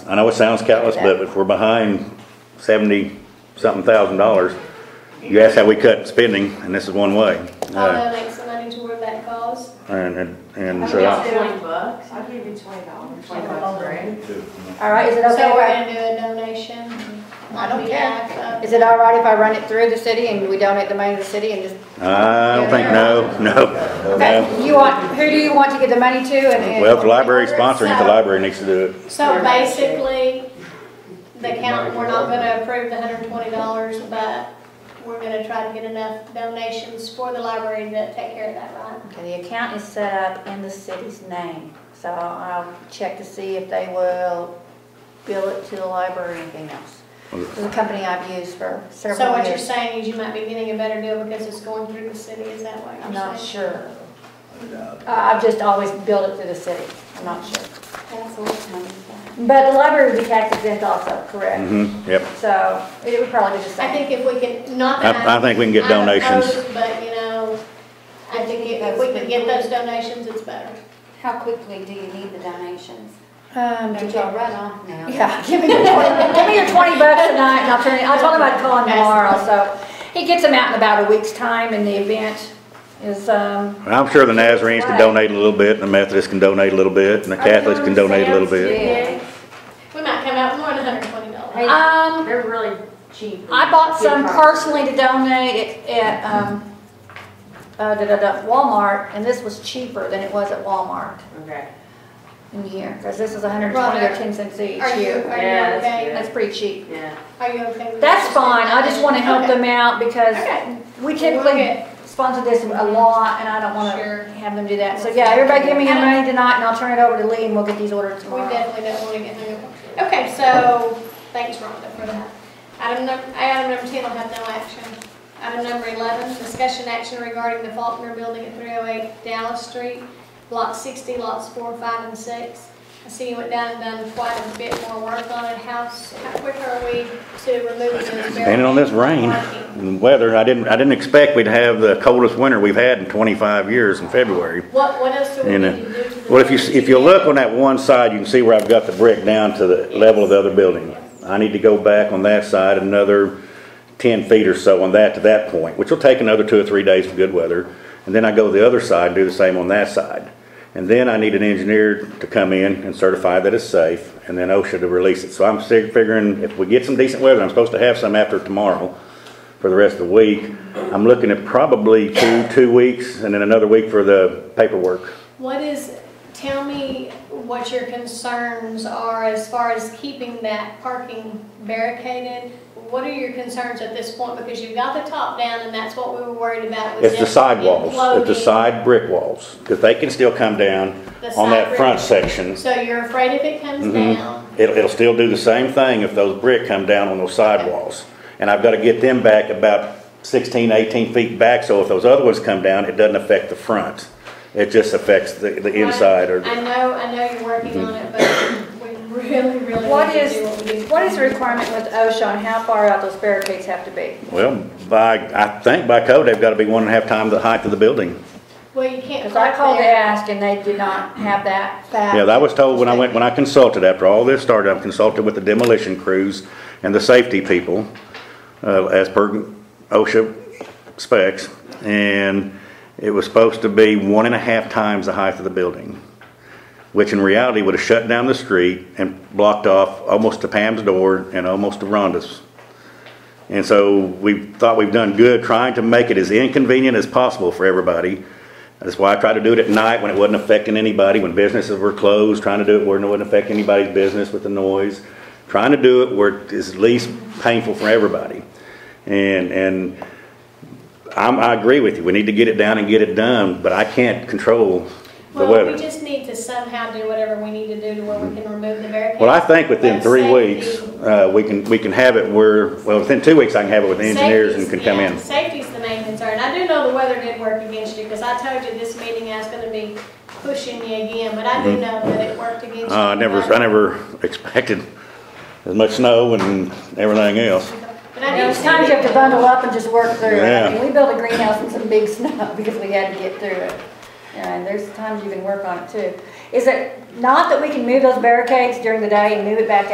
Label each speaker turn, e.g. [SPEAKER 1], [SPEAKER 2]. [SPEAKER 1] I know it sounds callous, but if we're behind seventy something thousand dollars, you ask how we cut spending, and this is one way.
[SPEAKER 2] I'll
[SPEAKER 1] Uh,
[SPEAKER 2] donate some money toward that cause.
[SPEAKER 1] And, and, and uh,
[SPEAKER 3] I mean,
[SPEAKER 1] so,
[SPEAKER 3] I'll do it.
[SPEAKER 4] bucks.
[SPEAKER 3] I'll give you twenty dollars. Twenty bucks, right?
[SPEAKER 4] All right, is it
[SPEAKER 2] So
[SPEAKER 4] okay if
[SPEAKER 2] we're
[SPEAKER 4] I,
[SPEAKER 2] gonna do a donation. uh,
[SPEAKER 4] I don't
[SPEAKER 2] care.
[SPEAKER 4] is it all right if I run it through the city and we donate the money to the city and just?
[SPEAKER 1] I don't think, no, no, no.
[SPEAKER 4] Okay, you want, who do you want to give the money to and? and-
[SPEAKER 1] Well, if the library's sponsoring, it, the library needs to do it.
[SPEAKER 2] So basically, the count, we're not gonna approve the hundred and twenty dollars, but we're gonna try to get enough donations for the library to take care of that, right?
[SPEAKER 5] Okay, the account is set up in the city's name, so I'll I'll check to see if they will bill it to the library or anything else. This is a company I've used for
[SPEAKER 2] So
[SPEAKER 5] several
[SPEAKER 2] what you're
[SPEAKER 5] years.
[SPEAKER 2] saying is you might be getting a better deal because it's going through the city, is that what
[SPEAKER 5] I'm not
[SPEAKER 2] you're saying?
[SPEAKER 5] sure.
[SPEAKER 4] Uh,
[SPEAKER 5] I- I've just always billed it to the city, I'm not sure. But the library would be tax exempt also, correct?
[SPEAKER 1] hmm yep.
[SPEAKER 5] So it would probably be the
[SPEAKER 2] I
[SPEAKER 5] same.
[SPEAKER 2] think if we can, not that
[SPEAKER 1] I, I think we can get
[SPEAKER 2] I'm
[SPEAKER 1] donations.
[SPEAKER 2] opposed, But, you know, I think if if we can get those donations, it's better.
[SPEAKER 6] How quickly do you need the donations?
[SPEAKER 4] Um,
[SPEAKER 6] Don't y'all run off now.
[SPEAKER 4] Yeah, give me your twenty, give me your twenty bucks tonight and I'll turn it, I told him I'd call him tomorrow, so. He gets them out in about a week's time and the event is, um.
[SPEAKER 1] I'm sure the Nazarenes can donate a little bit, and the Methodists can donate a little bit, and the Catholics can donate a little bit.
[SPEAKER 2] We might come out more than hundred and twenty dollars.
[SPEAKER 4] Um,
[SPEAKER 3] They're really cheap.
[SPEAKER 4] I bought some personally to donate at, at, um, uh, da, da, da, Walmart and this was cheaper than it was at Walmart
[SPEAKER 3] Okay.
[SPEAKER 4] in here, cause this is hundred and twenty or ten cents each
[SPEAKER 2] Are you,
[SPEAKER 4] year.
[SPEAKER 2] are
[SPEAKER 3] Yeah,
[SPEAKER 2] you
[SPEAKER 3] that's
[SPEAKER 2] okay?
[SPEAKER 4] That's pretty cheap.
[SPEAKER 3] Yeah.
[SPEAKER 2] Are you okay? with
[SPEAKER 4] That's
[SPEAKER 2] that?
[SPEAKER 4] fine, I just wanna help
[SPEAKER 2] Okay.
[SPEAKER 4] them out because
[SPEAKER 2] Okay.
[SPEAKER 4] we
[SPEAKER 2] We'll
[SPEAKER 4] typically
[SPEAKER 2] get-
[SPEAKER 4] sponsor this a lot, and I don't
[SPEAKER 2] Sure.
[SPEAKER 4] wanna have them do that. So, yeah, everybody give me your money tonight, and I'll turn it over to Lee, and we'll get these ordered
[SPEAKER 2] We
[SPEAKER 4] tomorrow.
[SPEAKER 2] definitely don't wanna get hung up. Okay, so, thanks Rhonda for that. Item number, item number ten will have no action. Item number eleven, discussion action regarding the Faulkner Building at three oh eight Dallas Street, block sixty, lots four, five, and six. I see you went down and done quite a bit more work on it. How, s- how quick are we to remove those barrels?
[SPEAKER 1] Depending on this rain and weather, I didn't, I didn't expect we'd have the coldest winter we've had in 25 years in February.
[SPEAKER 2] What, what else do we
[SPEAKER 1] You know,
[SPEAKER 2] need to do to the?
[SPEAKER 1] Well, if you,
[SPEAKER 2] building
[SPEAKER 1] if you
[SPEAKER 2] to
[SPEAKER 1] look
[SPEAKER 2] get-
[SPEAKER 1] on that one side, you can see where I've got the brick down to the level of the other building. I need to go back on that side another 10 feet or so on that to that point, which will take another two or three days of good weather. And then I go the other side and do the same on that side. And then I need an engineer to come in and certify that it's safe, and then OSHA to release it. So I'm sig- figuring if we get some decent weather, I'm supposed to have some after tomorrow for the rest of the week. I'm looking at probably two, two weeks, and then another week for the paperwork.
[SPEAKER 2] What is, tell me what your concerns are as far as keeping that parking barricaded? What are your concerns at this point? Because you've got the top down and that's what we were worried about was.
[SPEAKER 1] It's the
[SPEAKER 2] them
[SPEAKER 1] sidewalls, it's the
[SPEAKER 2] imploding.
[SPEAKER 1] side brick walls, because they can still come down
[SPEAKER 2] The
[SPEAKER 1] on that
[SPEAKER 2] side
[SPEAKER 1] front
[SPEAKER 2] brick.
[SPEAKER 1] section.
[SPEAKER 2] So you're afraid if it comes
[SPEAKER 1] Mhm.
[SPEAKER 2] down?
[SPEAKER 1] It'll, it'll still do the same thing if those brick come down on those sidewalls. And I've got to get them back about 16, 18 feet back, so if those other ones come down, it doesn't affect the front. It just affects the, the inside or,
[SPEAKER 2] I know, I know you're working on it, but we really, really
[SPEAKER 4] What
[SPEAKER 2] need to
[SPEAKER 4] is,
[SPEAKER 2] do what we need.
[SPEAKER 4] what is the requirement with OSHA on how far out those barricades have to be?
[SPEAKER 1] well, by, I think by code, they've got to be one and a half times the height of the building.
[SPEAKER 2] Well, you can't.
[SPEAKER 4] Because I
[SPEAKER 2] park
[SPEAKER 4] called to
[SPEAKER 2] there.
[SPEAKER 4] ask, and they did not have that fact.
[SPEAKER 1] Yeah, I was told when I went, when I consulted, after all this started, I consulted with the demolition crews and the safety people, uh, as per OSHA specs, and it was supposed to be one and a half times the height of the building, which in reality would have shut down the street and blocked off almost to Pam's door and almost to Rhonda's. And so we thought we've done good trying to make it as inconvenient as possible for everybody. That's why I tried to do it at night when it wasn't affecting anybody, when businesses were closed, trying to do it where it wouldn't affect anybody's business with the noise. Trying to do it where it's least painful for everybody. And, and I'm, I agree with you. We need to get it down and get it done, but I can't control the
[SPEAKER 2] Well, we
[SPEAKER 1] weather. Mm-hmm.
[SPEAKER 2] just need to somehow do whatever we need to do to where we can remove the barricade.
[SPEAKER 1] Well, I think within
[SPEAKER 2] But
[SPEAKER 1] three
[SPEAKER 2] safety-
[SPEAKER 1] weeks, uh, we can, we can have it where, well, within two weeks, I can have it with the engineers and can
[SPEAKER 2] Safety's-
[SPEAKER 1] come
[SPEAKER 2] yeah,
[SPEAKER 1] in.
[SPEAKER 2] Safety's the main concern. I do know the weather did work against you, because I told you this meeting I was gonna be pushing you again, but I do know that it worked against you.
[SPEAKER 1] Mm-hmm. Uh, I never, I never expected as much snow and everything else.
[SPEAKER 2] But I do
[SPEAKER 4] There's
[SPEAKER 2] see
[SPEAKER 4] times you have to
[SPEAKER 2] it.
[SPEAKER 4] bundle up and just work through it.
[SPEAKER 1] Yeah.
[SPEAKER 4] I mean, we built a greenhouse in some big snow because we had to get through it. And there's times you can work on it too. Is it not that we can move those barricades during the day and move it back